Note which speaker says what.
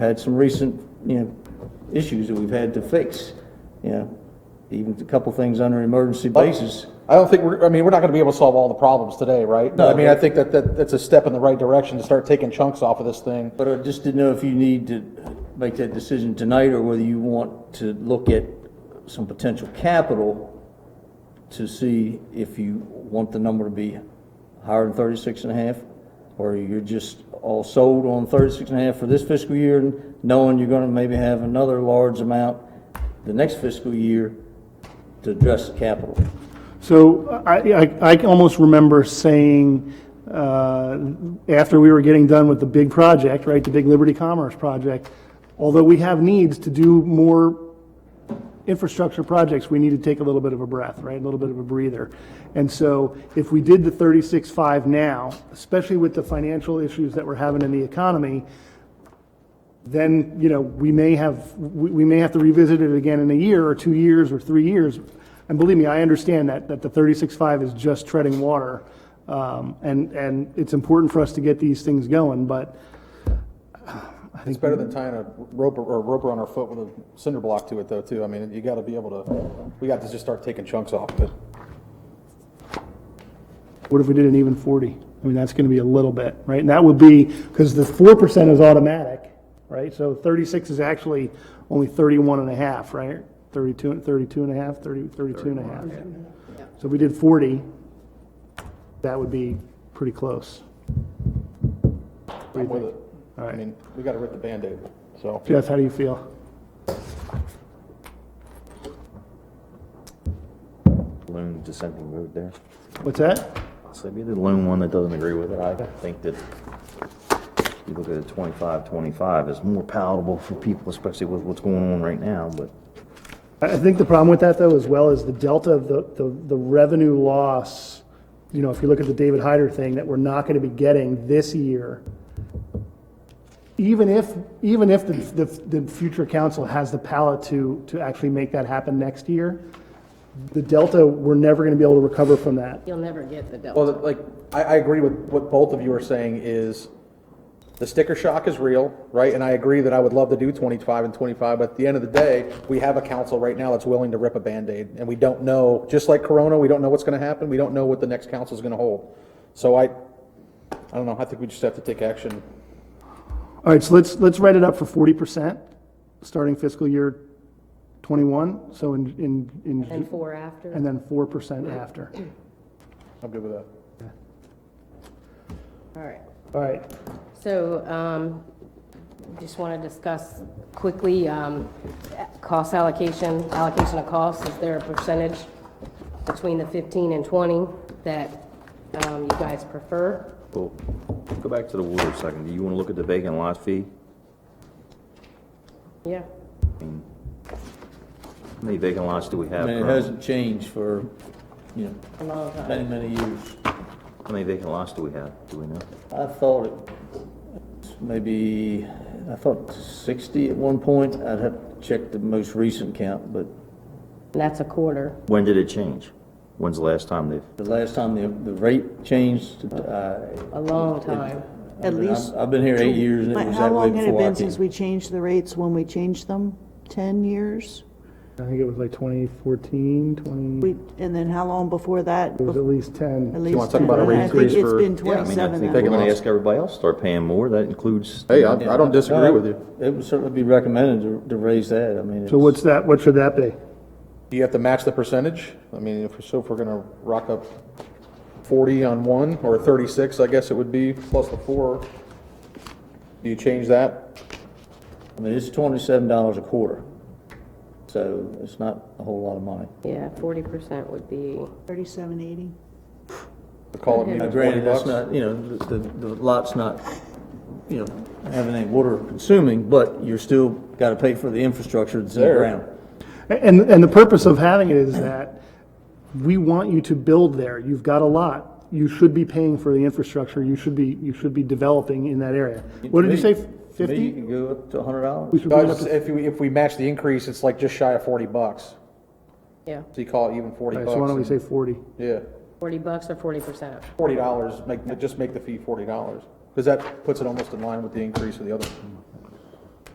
Speaker 1: had some recent, you know, issues that we've had to fix, you know, even a couple things on an emergency basis.
Speaker 2: I don't think we're, I mean, we're not gonna be able to solve all the problems today, right? But I mean, I think that, that, that's a step in the right direction to start taking chunks off of this thing.
Speaker 1: But I just didn't know if you need to make that decision tonight, or whether you want to look at some potential capital to see if you want the number to be higher than thirty-six and a half, or you're just all sold on thirty-six and a half for this fiscal year, and knowing you're gonna maybe have another large amount the next fiscal year to address the capital.
Speaker 3: So I, I, I can almost remember saying, uh, after we were getting done with the big project, right, the big Liberty Commerce project, although we have needs to do more infrastructure projects, we need to take a little bit of a breath, right? A little bit of a breather. And so if we did the 36.5 now, especially with the financial issues that we're having in the economy, then, you know, we may have, we we may have to revisit it again in a year or two years or three years. And believe me, I understand that, that the 36.5 is just treading water. Um, And, and it's important for us to get these things going, but
Speaker 2: It's better than tying a rope or or a rope around our foot with a cinder block to it though, too. I mean, you gotta be able to, we got to just start taking chunks off of it.
Speaker 3: What if we did an even 40? I mean, that's going to be a little bit, right? And that would be, because the 4% is automatic, right? So 36 is actually only 31 and a half, right? 32, and- 32 and a half, 30, 32 and a half. So if we did 40, that would be pretty close.
Speaker 2: I'm with it.
Speaker 3: All
Speaker 2: I
Speaker 3: right.
Speaker 2: mean, we gotta rip the Band-Aid, so.
Speaker 3: Jeff, how do you feel?
Speaker 4: lone dissenting vote there.
Speaker 3: What's that?
Speaker 4: So be the lone one that doesn't agree with it. I think that you look at it 25, 25 is more palatable for people, especially with what's going on right now, but
Speaker 3: I I think the problem with that, though, as well, is the delta of the, the, the revenue loss. You know, if you look at the David Hyder thing that we're not going to be getting this year, even if, even if the, the, the future council has the palate to, to actually make that happen next year, the delta, we're never going to be able to recover from that.
Speaker 5: You'll never get the delta.
Speaker 2: Well, the- like, I, I agree with what both of you are saying is the sticker shock is real, right? And I agree that I would love to do 25 and 25, but at the end of the day, we have a council right now that's willing to rip a Band-Aid. And we don't know, just like Corona, we don't know what's going to happen. We don't know what the next council is going to hold. So I, I don't know, I think we just have to take action.
Speaker 3: All right, so let's, let's write it up for 40%, starting fiscal year 21, so in, in,
Speaker 5: And
Speaker 3: in,
Speaker 5: four after?
Speaker 3: and then 4% after.
Speaker 2: I'm good with that.
Speaker 5: All right.
Speaker 3: All right,
Speaker 5: So um, just want to discuss quickly, um, cost allocation, allocation of costs. Is there a percentage between the 15 and 20 that um, you guys prefer?
Speaker 4: well, go back to the water a second. Do you want to look at the vacant lot fee?
Speaker 5: Yeah.
Speaker 4: I mean, How many vacant lots do we
Speaker 1: I
Speaker 4: have
Speaker 1: mean, it
Speaker 4: currently?
Speaker 1: hasn't changed for, you know,
Speaker 5: A long time.
Speaker 1: many, many years.
Speaker 4: How many vacant lots do we have? Do we know?
Speaker 1: I thought it, maybe, I thought 60 at one point. I'd have to check the most recent count, but
Speaker 5: And That's a quarter.
Speaker 4: When did it change? When's the last time they've,
Speaker 1: the last time the, the rate changed, uh.
Speaker 5: A long time.
Speaker 1: I
Speaker 6: At
Speaker 1: mean, I've-
Speaker 6: least
Speaker 1: I've been here eight years and it
Speaker 6: But
Speaker 1: was
Speaker 6: how
Speaker 1: that way
Speaker 6: long had it
Speaker 1: before I
Speaker 6: been since
Speaker 1: came.
Speaker 6: we changed the rates when we changed them? 10 years?
Speaker 3: I think it was like 2014, 20,
Speaker 6: We, and then how long before that?
Speaker 3: it was at least 10.
Speaker 6: At
Speaker 2: you
Speaker 6: least
Speaker 2: wanna talk
Speaker 6: 10.
Speaker 2: about a rate
Speaker 6: I think
Speaker 2: increase
Speaker 6: it's
Speaker 2: for-
Speaker 6: been
Speaker 2: Yeah,
Speaker 4: I mean, I
Speaker 6: 27
Speaker 4: think
Speaker 6: now.
Speaker 4: we're
Speaker 2: Vacant
Speaker 4: going to
Speaker 2: lots.
Speaker 4: ask everybody else to start paying more. That includes,
Speaker 2: Hey, I, I don't disagree with you.
Speaker 1: It would certainly be recommended to, to raise that. I mean.
Speaker 3: So
Speaker 1: it's-
Speaker 3: what's that, what should that be?
Speaker 2: Do you have to match the percentage? I mean, if, so if we're gonna rock up forty on one, or thirty-six, I guess it would be, plus the four, do you change that?
Speaker 1: I mean, it's twenty-seven dollars a quarter. So it's not a whole lot of money.
Speaker 5: Yeah, 40% would be,
Speaker 6: 3780.
Speaker 2: Call it
Speaker 1: Now,
Speaker 2: even forty
Speaker 1: Granted, that's
Speaker 2: bucks?
Speaker 1: not, you know, the, the- the lot's not, you know, having any water consuming, but you're still gotta pay for the infrastructure that's in the
Speaker 2: There.
Speaker 1: ground.
Speaker 3: And, and the purpose of having it is that we want you to build there. You've got a lot. You should be paying for the infrastructure. You should be, you should be developing in that area. What did you say,
Speaker 1: To me- to me, You
Speaker 3: 50?
Speaker 1: can go up to hundred dollars.
Speaker 3: We should
Speaker 2: No,
Speaker 3: bring it
Speaker 2: it's
Speaker 3: up
Speaker 2: just-
Speaker 3: to-
Speaker 2: If, we- if we match the increase, it's like just shy of forty bucks,
Speaker 5: yeah,
Speaker 2: so you call it even forty
Speaker 3: all right,
Speaker 2: bucks.
Speaker 3: So why don't we say 40?
Speaker 2: Yeah,
Speaker 5: 40 bucks or 40%?
Speaker 2: forty dollars, make, just make the fee forty dollars, because that puts it almost in line with the increase of the other.